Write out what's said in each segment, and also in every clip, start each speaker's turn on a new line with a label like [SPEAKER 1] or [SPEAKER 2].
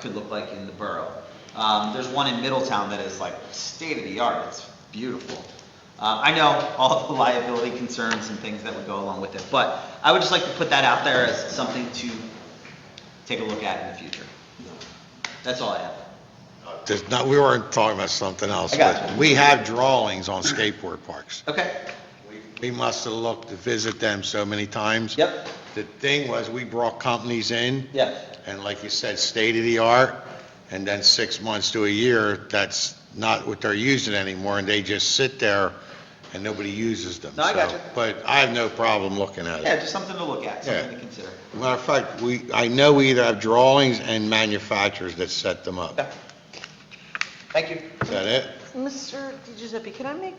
[SPEAKER 1] could look like in the borough. Um, there's one in Middletown that is like state of the art, it's beautiful. Uh, I know all the liability concerns and things that would go along with it, but I would just like to put that out there as something to take a look at in the future. That's all I have.
[SPEAKER 2] There's not, we weren't talking about something else.
[SPEAKER 1] I got
[SPEAKER 2] but
[SPEAKER 1] you.
[SPEAKER 2] We have drawings on skateboard parks.
[SPEAKER 1] Okay,
[SPEAKER 2] We must have looked to visit them so many times.
[SPEAKER 1] yep,
[SPEAKER 2] The thing was, we brought companies in,
[SPEAKER 1] yeah,
[SPEAKER 2] and like you said, state of the art, and then six months to a year, that's not what they're using anymore, and they just sit there, and nobody uses them.
[SPEAKER 1] No, I got
[SPEAKER 2] So-
[SPEAKER 1] you.
[SPEAKER 2] But I have no problem looking at it.
[SPEAKER 1] yeah, just something to look at, something to
[SPEAKER 2] Yeah.
[SPEAKER 1] consider.
[SPEAKER 2] Matter of fact, we, I know we either have drawings and manufacturers that set them up.
[SPEAKER 1] Okay. Thank you.
[SPEAKER 2] Is that it?
[SPEAKER 3] Mr. Di Giuseppe, can I make,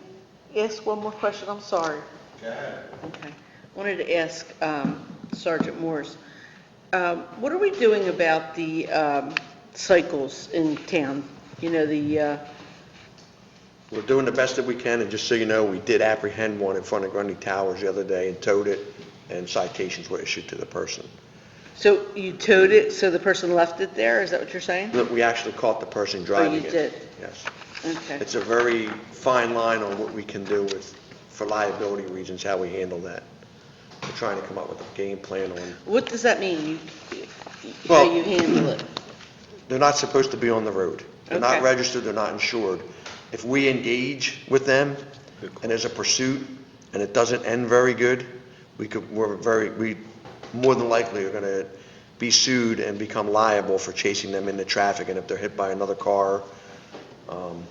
[SPEAKER 3] ask one more question? I'm sorry. Okay. Wanted to ask um, Sergeant Morse, um, what are we doing about the um, cycles in town? You know, the, uh,
[SPEAKER 4] We're doing the best that we can, and just so you know, we did apprehend one in front of Grundy Towers the other day and towed it, and citations were issued to the person.
[SPEAKER 3] so you towed it, so the person left it there? Is that what you're saying?
[SPEAKER 4] Look, we actually caught the person driving it.
[SPEAKER 3] did?
[SPEAKER 4] Yes.
[SPEAKER 3] Okay.
[SPEAKER 4] It's a very fine line on what we can do with, for liability reasons, how we handle that. We're trying to come up with a game plan on,
[SPEAKER 3] What does that mean, you- how
[SPEAKER 4] Well-
[SPEAKER 3] you handle it?
[SPEAKER 4] they're not supposed to be on the road. They're
[SPEAKER 3] Okay.
[SPEAKER 4] not registered, they're not insured. If we engage with them, and there's a pursuit, and it doesn't end very good, we could, we're very, we more than likely are gonna be sued and become liable for chasing them into traffic, and if they're hit by another car, um,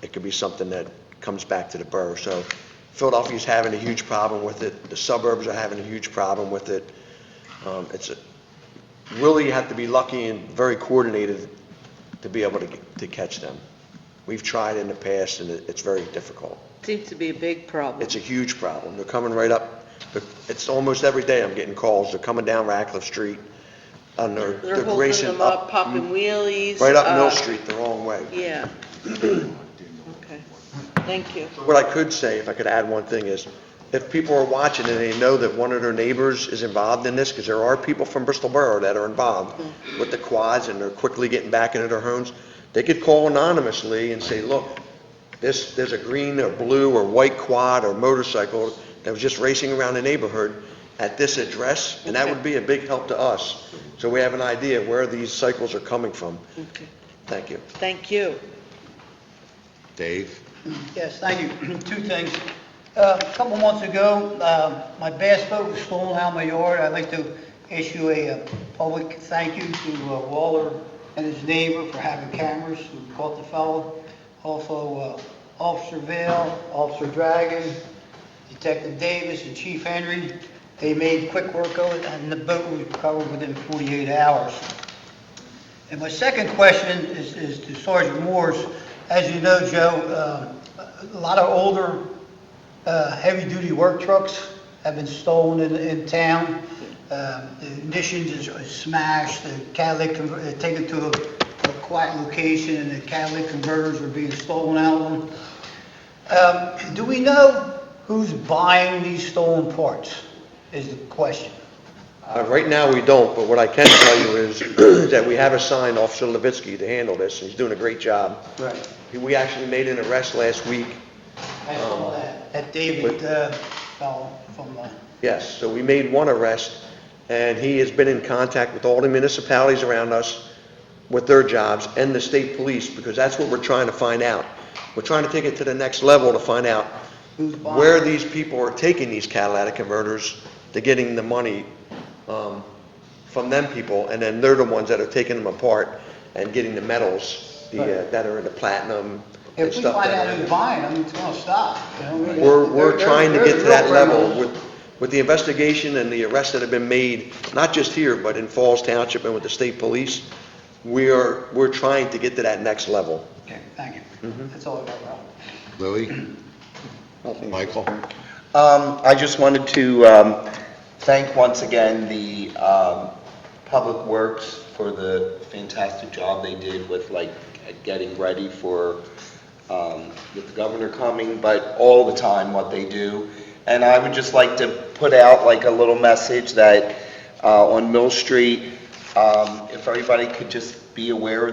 [SPEAKER 4] it could be something that comes back to the borough. So Philadelphia's having a huge problem with it, the suburbs are having a huge problem with it. Um, It's, a- really have to be lucky and very coordinated to be able to, to catch them. We've tried in the past, and it- it's very difficult.
[SPEAKER 3] Seems to be a big problem.
[SPEAKER 4] It's a huge problem. They're coming right up, but it's almost every day I'm getting calls. They're coming down Ratcliffe Street, and they're,
[SPEAKER 3] They're
[SPEAKER 4] they're
[SPEAKER 3] holding
[SPEAKER 4] racing
[SPEAKER 3] them up,
[SPEAKER 4] up,
[SPEAKER 3] popping wheelies.
[SPEAKER 4] right up
[SPEAKER 3] uh,
[SPEAKER 4] Mill Street the wrong way.
[SPEAKER 3] Yeah. Okay, thank you.
[SPEAKER 4] What I could say, if I could add one thing, is if people are watching and they know that one of their neighbors is involved in this, because there are people from Bristol Borough that are involved with the quads and they're quickly getting back into their homes, they could call anonymously and say, look, this, there's a green or blue or white quad or motorcycle that was just racing around the neighborhood at this address, and that would be a big help to us. So we have an idea where these cycles are coming from.
[SPEAKER 3] Okay.
[SPEAKER 4] Thank you.
[SPEAKER 3] Thank you.
[SPEAKER 2] Dave?
[SPEAKER 5] Yes, thank you. Two things. Uh, A couple months ago, uh, my bass boat was stolen out my yard. I'd like to issue a uh, public thank you to uh, Waller and his neighbor for having cameras who caught the fellow. Also, uh, Officer Vale, Officer Dragon, Detective Davis, and Chief Henry. They made quick work of it, and the boat was recovered within 48 hours. And my second question is, is to Sergeant Morse. As you know, Joe, um, a lot of older, uh, heavy-duty work trucks have been stolen in, in town. Um, The ignitions is is smashed, the catalytic, conver- uh, taken to a a quiet location, and the catalytic converters are being stolen out of them. Um, Do we know who's buying these stolen parts, is the question.
[SPEAKER 4] Uh, Right now, we don't, but what I can tell you is that we have assigned Officer Levitsky to handle this, and he's doing a great job.
[SPEAKER 5] Right.
[SPEAKER 4] We actually made an arrest last week,
[SPEAKER 5] I saw
[SPEAKER 4] Um,
[SPEAKER 5] that, that David uh, fellow from, uh,
[SPEAKER 4] yes, so we made one arrest, and he has been in contact with all the municipalities around us with their jobs and the state police, because that's what we're trying to find out. We're trying to take it to the next level to find out
[SPEAKER 5] who's buying.
[SPEAKER 4] where these people are taking these catalytic converters, they're getting the money um, from them people, and then they're the ones that are taking them apart and getting the metals, the, uh, that are in the platinum and
[SPEAKER 5] If we
[SPEAKER 4] stuff.
[SPEAKER 5] find
[SPEAKER 4] that
[SPEAKER 5] out
[SPEAKER 4] are in
[SPEAKER 5] who's
[SPEAKER 4] there.
[SPEAKER 5] buying them, it's gonna stop, you know? we-
[SPEAKER 4] We're, we're
[SPEAKER 5] they're-
[SPEAKER 4] trying to
[SPEAKER 5] they're-
[SPEAKER 4] get to that
[SPEAKER 5] they're-
[SPEAKER 4] level with, with the investigation and the arrests that have been made, not just here, but in Falls Township and with the state police. We are, we're trying to get to that next level.
[SPEAKER 5] Okay, thank you.
[SPEAKER 4] Mm-hmm.
[SPEAKER 5] That's all I got, Ralph.
[SPEAKER 2] Louis? Michael?
[SPEAKER 6] Um, I just wanted to um, thank once again the um, Public Works for the fantastic job they did with like getting ready for, um, with the governor coming, but all the time what they do. And I would just like to put out like a little message that uh, on Mill Street, um, if everybody could just be aware of